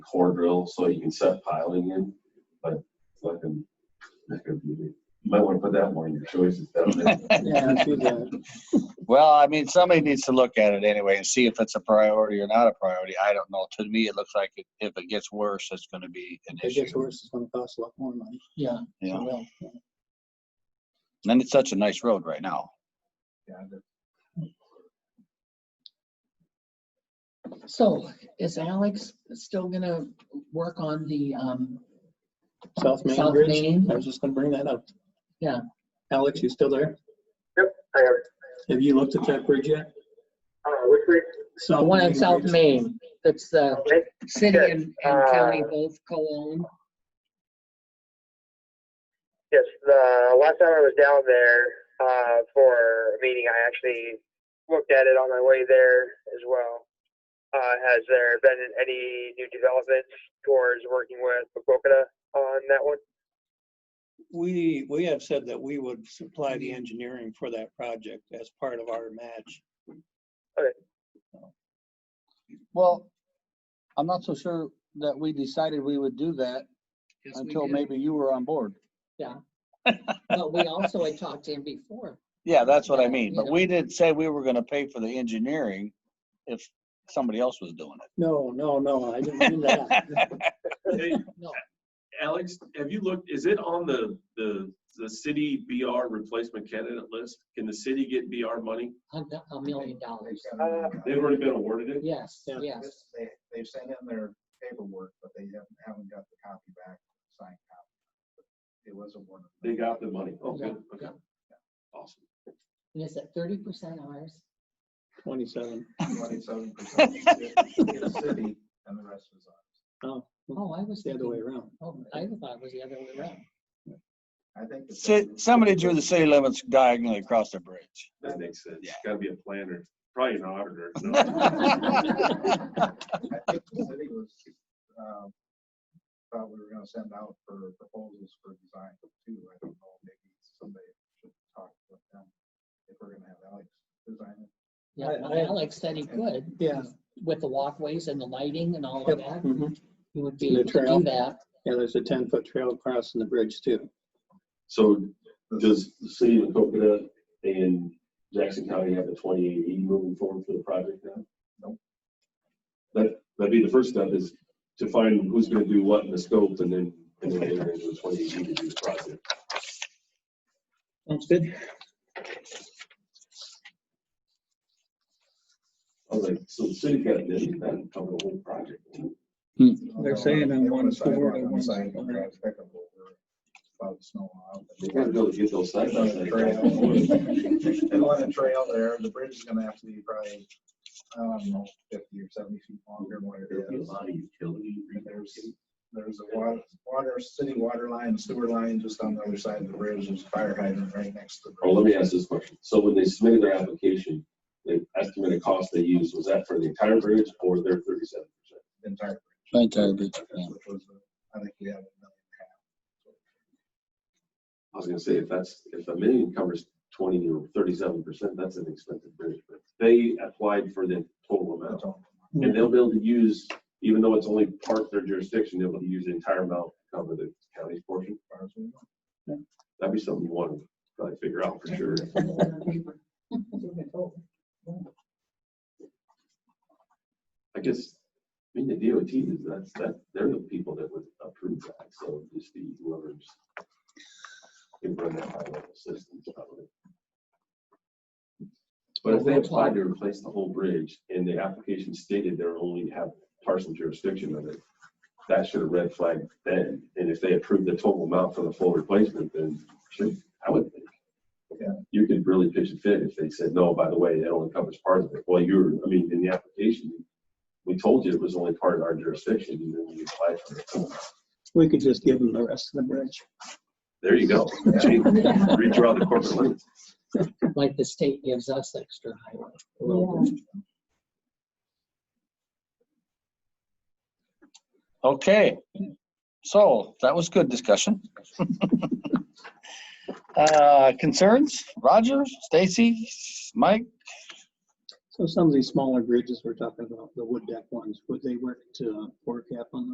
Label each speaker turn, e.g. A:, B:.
A: core drill so you can set piling in, but it's not gonna, not gonna be, you might wanna put that more in your choices down there.
B: Yeah, too bad.
C: Well, I mean, somebody needs to look at it anyway and see if it's a priority or not a priority. I don't know. To me, it looks like it- if it gets worse, it's going to be an
B: If it gets
C: issue.
B: worse, it's gonna cost a lot more money. Yeah.
C: Yeah.
B: it will.
C: And it's such a nice road right now.
D: So is Alex still gonna work on the, um,
B: South Main
D: South
B: Bridge,
D: Main?
B: I was just gonna bring that up.
D: Yeah.
B: Alex, you still there?
E: I have,
B: Have you looked at that bridge yet?
E: uh, which week?
D: The one in
B: Main
D: South
B: Bridge.
D: Main, that's the
E: Okay.
D: city and, and county
E: Uh,
D: both co-own.
E: Yes, the last time I was down there, uh, for a meeting, I actually looked at it on my way there as well. Uh, has there been any new developments towards working with Bokota on that one?
F: We, we have said that we would supply the engineering for that project as part of our match.
C: Well, I'm not so sure that we decided we would do that until maybe you were on board.
D: But we also had talked to him before.
C: Yeah, that's what I
D: Yeah,
C: mean.
D: you
C: But
D: know.
C: we didn't say we were going to pay for the engineering if somebody else was doing it.
B: No, no, no, I didn't mean that.
G: Hey,
D: No.
G: Alex, have you looked, is it on the, the, the city BR replacement candidate list? Can the city get BR money?
D: A do- a million dollars.
E: Uh,
G: They've already been awarded it?
D: Yes,
B: Yeah.
D: yes.
H: They, they've sent in their paperwork, but they haven't, haven't got the copy back, signed copy. It was awarded.
G: They got the money? Oh, good,
D: Yeah,
G: okay.
D: yeah.
G: Awesome.
D: And is it thirty percent ours?
B: Twenty-seven.
H: Twenty-seven percent is the city and the rest was ours.
B: Oh,
D: Oh, I was
B: it's the other way
D: thinking,
B: around.
D: oh, I thought it was the other way around.
H: I think. the
C: Si-
H: city-
C: Somebody drew the city limits diagonally across the bridge.
G: That makes sense.
C: Yeah.
G: Gotta be a planner, probably an auditor. No.
H: I think the city was, um, thought we were gonna send out for proposals for design too. I don't know, maybe somebody should talk with them if we're gonna have Alex design it.
D: Yeah,
B: I-
D: well,
B: I-
D: Alex said he could.
B: Yeah.
D: With the walkways and the lighting and all
B: Yep,
D: of that,
B: mhm.
D: he would be
B: The
D: able to
B: trail.
D: do that.
B: Yeah, there's a ten-foot trail crossing the bridge too.
A: So does the city of Coconut and Jackson County have a twenty eighty moving forward for the project now?
H: Nope.
A: That, that'd be the first step is to find who's gonna do what in the scope and then, and then enter into a twenty eighty E to do the project.
B: Sounds good.
A: I was like, so the city got a million, that cover the whole project.
F: They're saying on
H: They want a
F: one floor,
H: sidewalk
F: they
H: on
F: want
H: the side of the
F: one-
H: drive pickup over about the snow out.
A: They gotta be able to get those
H: They
A: sites
H: want
A: out
H: a
A: there.
H: trail- they want a trail there, the bridge is gonna have to be probably, I don't know, fifty or seventy feet longer than what it
A: There'd be a
H: is.
A: lot of utility
H: There's- There's a water, water, city water line, sewer line just on the other side of the bridge, there's a fire hydrant right next to the
A: Or
H: bridge.
A: let me ask this question. So when they submitted their application, the estimated cost they used, was that for the entire bridge or their thirty-seven percent?
H: the Entire,
C: Entire bridge, yeah.
H: bridge, which was, uh, I think we have a million
A: I was gonna say, if that's, if a million covers twenty or thirty-seven percent, that's an expensive bridge, but they applied for the total
H: and a
A: amount.
H: half. total.
A: And they'll be able to use, even though it's only part of their jurisdiction, they'll be able to use the entire amount to cover the county's portion.
H: as far as we know.
A: That'd be something you want to probably figure out for sure. I guess, I mean, the DOT is, that's, that, they're the people that would approve that, so just the whoever's. Can run that high level system. probably. But if they applied to replace the whole bridge and the application stated they're only have partial jurisdiction of it, that should have red flagged then. And if they approved the total amount for the full replacement, then should, I would think.
H: Yeah.
A: You could really pitch a fit if they said, no, by the way, it only covers part of it. Well, you're, I mean, in the application, we told you it was only part of our jurisdiction, and then we applied for it.
B: We could just give them the rest of the bridge.
A: There you go. Gee, Redraw the corporate limits.
D: Like the state gives us extra highway.
H: A little bit.
C: Okay, so that was good discussion. Uh, Concerns, Roger, Stacy, Mike?
B: So some of these smaller bridges we're talking about, the wood deck ones, would they work to uh, forecap on those?